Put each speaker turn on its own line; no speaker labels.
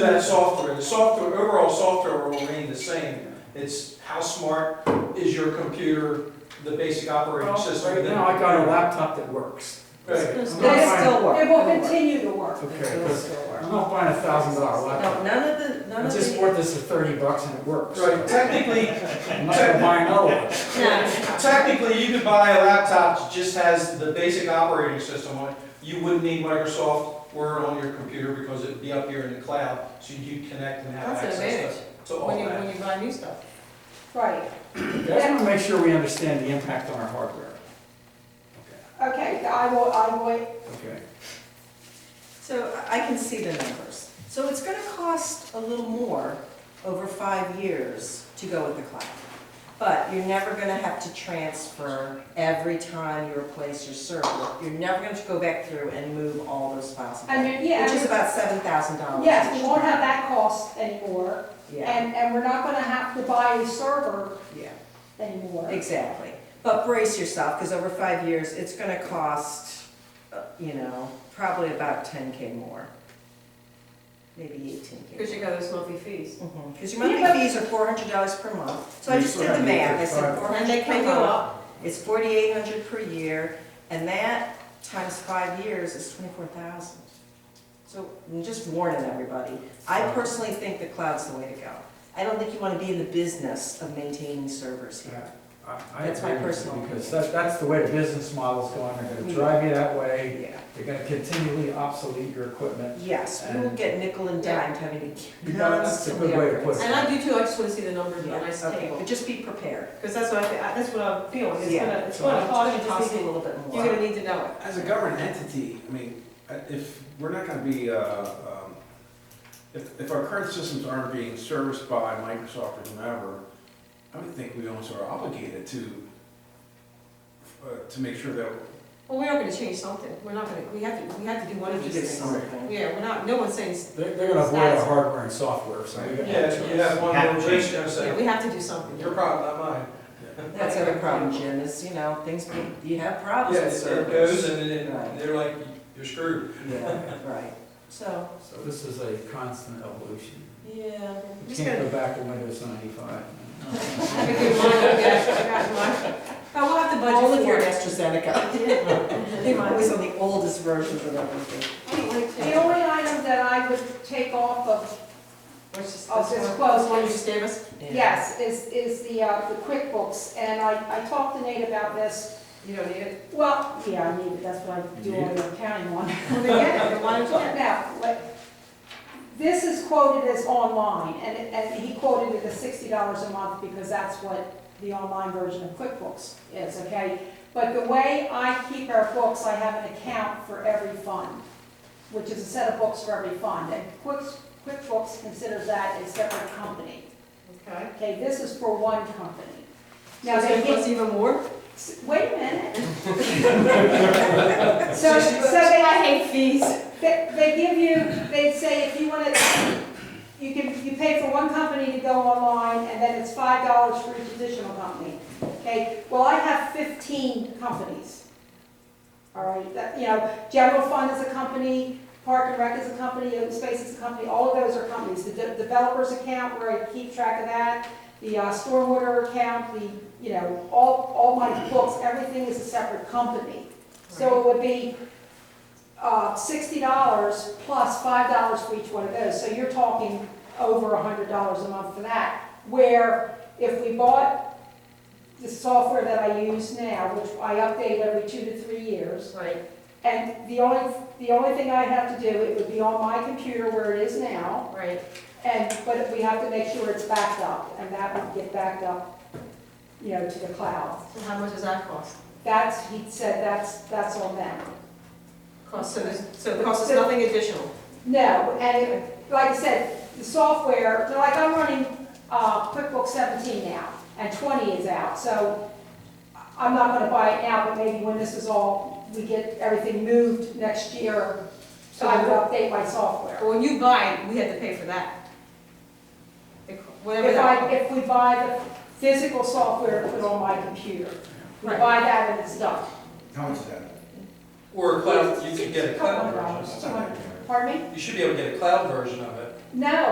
that software, the software, overall software will remain the same. It's how smart is your computer, the basic operating system.
Right
that-
now, I got a laptop that works.
Right.
I'm not
They
buying-
still work.
It will continue to work.
Okay,
They will
but-
still work.
I'm not buying a thousand dollar
No,
laptop.
none of the,
I
none of the.
just bought this for thirty bucks and it works.
Right, technically,
I'm not gonna buy another one.
No,
Technically, you could buy a laptop that just has the basic operating system on it. You wouldn't need Microsoft Word on your computer because it'd be up here in the cloud, so you'd connect and have
That's an
access
advantage,
to- to all
when you,
that.
when you buy new stuff.
Right,
I just wanna make sure we understand the impact on our hardware.
okay, I will, I will,
Okay.
So I I can see the numbers. So it's gonna cost a little more over five years to go with the cloud. But you're never gonna have to transfer every time you replace your server. You're never gonna go back through and move all those files.
and,
again,
then, yeah,
Which is
and-
about seven thousand dollars.
yes, we won't have that cost anymore,
Yeah,
and, and we're not gonna have to buy a server
yeah,
anymore.
exactly. But brace yourself, because over five years, it's gonna cost, uh, you know, probably about ten K more. Maybe eighteen K. Mm-hmm.
Because you got those monthly fees.
Because your
Yeah,
monthly
but-
fees are four hundred dollars per month, so I
You
just
still
did the
have to
math, I
pay
said
five.
four hundred per month. It's forty-eight hundred per year, and that times five years is twenty-four thousand. So I'm just warning everybody, I personally think the cloud's the way to go. I don't think you wanna be in the business of maintaining servers here.
I- I
That's my
agree with you,
personal Mm-hmm.
Because that, that's the way the business model's going, they're gonna drive you that way,
Yeah,
they're gonna continually obsolete your equipment.
yes, we will get nickel and dime having to
You know, that's a
constantly
good way to put
upgrade.
it.
And I do too, I just wanna see the numbers on a nice
Yeah, okay,
table.
but just be prepared,
Because that's what I, think- that's what I'm feeling, it's
Yeah.
gonna, it's
it's
gonna
gonna
cost you
cost a
just,
little bit more.
you're gonna need to know
As a government entity, I mean, uh, if, we're not gonna be, uh, um, if, if our current systems aren't being serviced by Microsoft or whomever, I would think we almost are obligated to, uh, to make sure that,
it. Well, we are gonna change something, we're not gonna, we have to, we have to do one
You
of these
did
things.
something.
Yeah, we're not, no one's saying, s-
They're, they're gonna avoid our hardware and software, so we got no
Yeah, you
choice.
have one
Have
little
to change
change, I
yeah,
say,
we have to do something.
your problem, not mine.
That's the other problem, Jim, is, you know, things, be- you have problems
Yeah,
with
it goes
servers.
and then
Right.
they're like, you're screwed.
Yeah, right, so,
So this is a constant evolution.
yeah.
You
Just
can't
gonna-
go back to Windows ninety-five.
I think we might have to- I got mine. But we'll have to
All
budget
of
for
your
it.
AstraZeneca. They're always on the oldest versions of everything.
I don't like
The
to-
only item that I would take off of,
What's this-
Oh,
this
it's
one-
closed.
this one you just gave us?
Yeah.
yes, is, is the, uh, the QuickBooks, and I, I talked to Nate about this.
You don't need it?
Well, yeah, I need it, that's what I do all the accounting on.
Well, then get it, then why don't you?
Now, like, this is quoted as online, and, it- and he quoted it as sixty dollars a month because that's what the online version of QuickBooks is, okay? But the way I keep our books, I have an account for every fund, which is a set of books for every fund. And Quick, QuickBooks considers that a separate company.
Okay.
Okay, this is for one company.
So
Now,
it's
they
gonna
get,
cost even more?
wait a minute. So, so they
I hate fees.
They, they give you, they say if you want to, you can, you pay for one company to go online, and then it's five dollars for each additional company. Okay, well, I have fifteen companies. All right, that, you know, general fund is a company, park and rec is a company, open space is a company, all of those are companies. The de- developer's account where I keep track of that, the uh, stormwater account, the, you know, all, all my books, everything is a separate company. So it would be uh, sixty dollars plus five dollars for each one of those, so you're talking over hundred dollars a month for that. Where if we bought the software that I use now, which I update every two to three years,
Right,
and the only, the only thing I'd have to do, it would be on my computer where it is now,
right.
and, but we have to make sure it's backed up, and that would get backed up, you know, to the cloud.
So how much does that cost?
That's, he said, that's, that's on them.
Cost, so there's, so it costs us nothing additional?
No, and it- like I said, the software, like I'm running uh, QuickBooks 17 now, and 20 is out, so I'm not gonna buy it now, but maybe when this is all, we get everything moved next year, so I would update my software.
But when you buy, it, we had to pay for that. The co- Whatever
If I,
that.
if we buy the physical software to put on my computer, we buy that and it's done.
how much is that?
Or a cloud, you could get a
Couple
cloud
of
version.
dollars, two hundred, pardon me?
You should be able to get a cloud version of it.
No,